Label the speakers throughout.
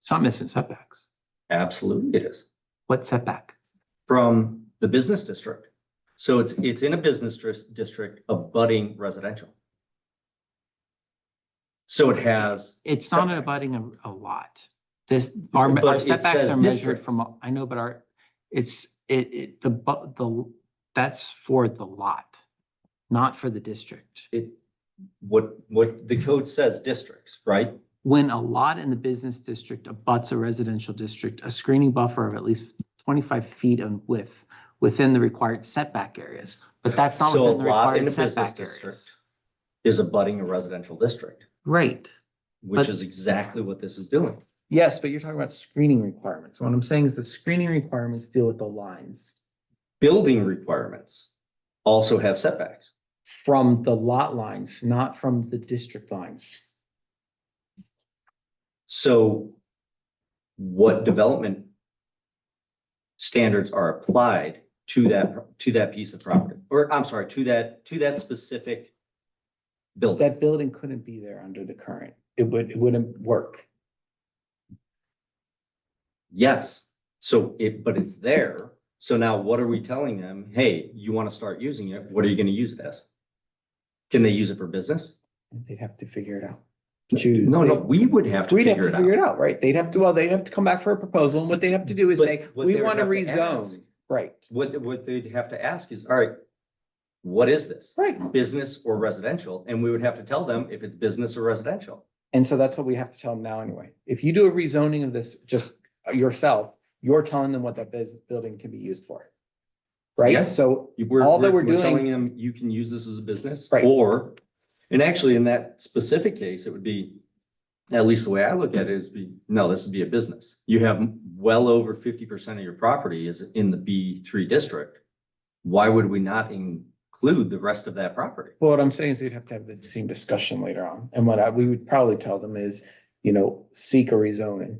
Speaker 1: It's not missing setbacks.
Speaker 2: Absolutely it is,
Speaker 1: What setback?
Speaker 2: from the business district. So it's, it's in a business dris- district abutting residential. So it has,
Speaker 1: It's not an
Speaker 2: Setbacks.
Speaker 1: abutting a, a lot. This, our,
Speaker 2: But
Speaker 1: our
Speaker 2: it
Speaker 1: setbacks
Speaker 2: says
Speaker 1: are measured
Speaker 2: districts.
Speaker 1: from, I know, but our, it's, it, it, the, bu- the, that's for the lot, not for the district.
Speaker 2: it, what, what the code says districts, right?
Speaker 1: When a lot in the business district abuts a residential district, a screening buffer of at least twenty-five feet in width within the required setback areas, but that's not
Speaker 2: So a
Speaker 1: within the
Speaker 2: lot in
Speaker 1: required
Speaker 2: the business
Speaker 1: setback areas.
Speaker 2: district is abutting a residential district,
Speaker 1: Right.
Speaker 2: which
Speaker 1: But-
Speaker 2: is exactly what this is doing.
Speaker 1: Yes, but you're talking about screening requirements. What I'm saying is the screening requirements deal with the lines
Speaker 2: Building requirements also have setbacks.
Speaker 1: from the lot lines, not from the district lines.
Speaker 2: So what development standards are applied to that, to that piece of property? Or I'm sorry, to that, to that specific building?
Speaker 1: That building couldn't be there under the current. It would, it wouldn't work.
Speaker 2: Yes, so it, but it's there. So now what are we telling them? Hey, you want to start using it, what are you going to use it as? Can they use it for business?
Speaker 1: They'd have to figure it out. Choose-
Speaker 2: No, no, we would have to
Speaker 1: We'd have
Speaker 2: figure
Speaker 1: to
Speaker 2: it
Speaker 1: figure
Speaker 2: out.
Speaker 1: it out, right? They'd have to, well, they'd have to come back for a proposal and what they'd have to do is
Speaker 2: But
Speaker 1: say,
Speaker 2: what
Speaker 1: we
Speaker 2: they would
Speaker 1: want to
Speaker 2: have to ask-
Speaker 1: rezone. Right,
Speaker 2: What, what they'd have to ask is, all right, what is this?
Speaker 1: right.
Speaker 2: business or residential, and we would have to tell them if it's business or residential.
Speaker 1: And so that's what we have to tell them now anyway. If you do a rezoning of this just yourself, you're telling them what that bus- building can be used for. Right?
Speaker 2: Yes.
Speaker 1: So
Speaker 2: You- We're,
Speaker 1: All that we're
Speaker 2: we're we're
Speaker 1: doing-
Speaker 2: telling them, you can use this as a business,
Speaker 1: Right.
Speaker 2: or, and actually, in that specific case, it would be, at least the way I look at it is be, no, this would be a business. You have well over fifty percent of your property is in the B three district. Why would we not include the rest of that property?
Speaker 1: Well, what I'm saying is you'd have to have the same discussion later on. And what I, we would probably tell them is, you know, seek a rezoning.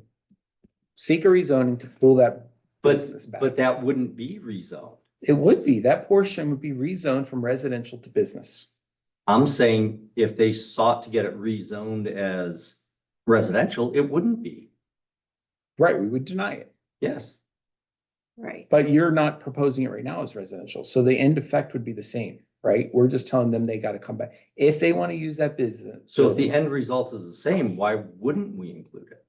Speaker 1: Seek a rezoning to pull that
Speaker 2: But,
Speaker 1: business back.
Speaker 2: but that wouldn't be rezoned.
Speaker 1: It would be, that portion would be rezoned from residential to business.
Speaker 2: I'm saying if they sought to get it rezoned as residential, it wouldn't be.
Speaker 1: Right, we would deny it,
Speaker 2: Yes.
Speaker 3: Right.
Speaker 1: but you're not proposing it right now as residential. So the end effect would be the same, right? We're just telling them they gotta come back. If they wanna use that business.
Speaker 2: So if the end result is the same, why wouldn't we include it?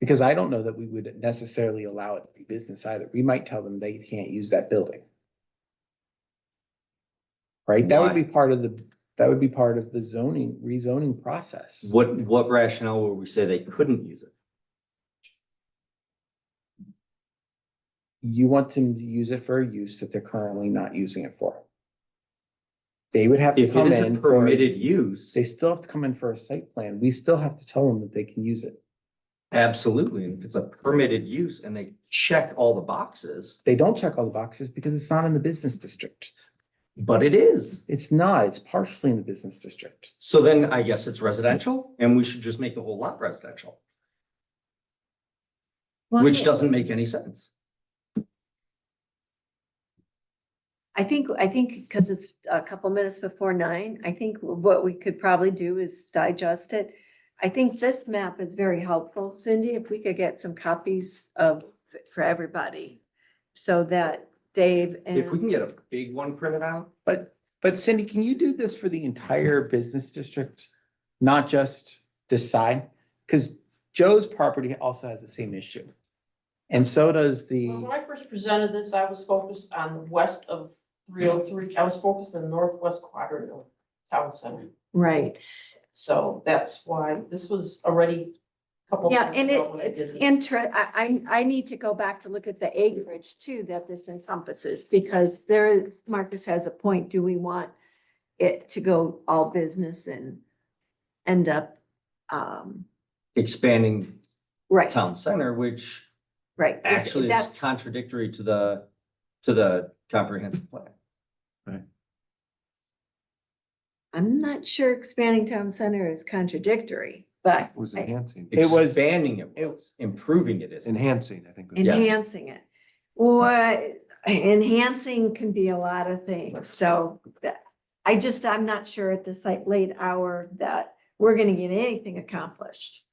Speaker 1: Because I don't know that we would necessarily allow it to be business either. We might tell them they can't use that building. Right? That would
Speaker 2: Why?
Speaker 1: be part of the, that would be part of the zoning, rezoning process.
Speaker 2: What, what rationale would we say they couldn't use it?
Speaker 1: You want them to use it for a use that they're currently not using it for. They would have to
Speaker 2: If it
Speaker 1: come
Speaker 2: is a
Speaker 1: in. for-
Speaker 2: permitted use,
Speaker 1: They still have to come in for a site plan. We still have to tell them that they can use it.
Speaker 2: absolutely. And if it's a permitted use and they check all the boxes,
Speaker 1: They don't check all the boxes because it's not in the business district.
Speaker 2: but it is.
Speaker 1: It's not, it's partially in the business district.
Speaker 2: So then I guess it's residential and we should just make the whole lot residential, which doesn't make any sense.
Speaker 3: I think, I think because it's a couple minutes before nine, I think what we could probably do is digest it. I think this map is very helpful. Cindy, if we could get some copies of, for everybody. So that Dave
Speaker 2: If we
Speaker 3: and,
Speaker 2: can get a big one printed out,
Speaker 1: But, but Cindy, can you do this for the entire business district? Not just this side? Because Joe's property also has the same issue. And so does
Speaker 4: Well,
Speaker 1: the,
Speaker 4: When I first presented this, I was focused on the west of three oh three, I was focused on the northwest quadrant of town center.
Speaker 3: right.
Speaker 4: So that's why this was already a couple.
Speaker 3: Yeah,
Speaker 4: times
Speaker 3: and it,
Speaker 4: ago when I did
Speaker 3: it's
Speaker 4: this.
Speaker 3: inter, I, I, I need to go back to look at the acreage too that this encompasses because there is, Marcus has a point. Do we want it to go all business and end up, um,
Speaker 2: expanding
Speaker 3: right,
Speaker 2: town center, which
Speaker 3: right. Is-
Speaker 2: actually is
Speaker 3: that's-
Speaker 2: contradictory to the, to the comprehensive plan.
Speaker 3: I'm not sure expanding town center is contradictory, but
Speaker 5: was
Speaker 3: I-
Speaker 5: enhancing,
Speaker 1: It was-
Speaker 2: Expanding it,
Speaker 1: it-
Speaker 2: was, improving it is.
Speaker 5: enhancing, I think. was-
Speaker 2: Yeah.
Speaker 3: enhancing it. Or enhancing can be a lot of things, so that, I just, I'm not sure at this like late hour that we're gonna get anything accomplished.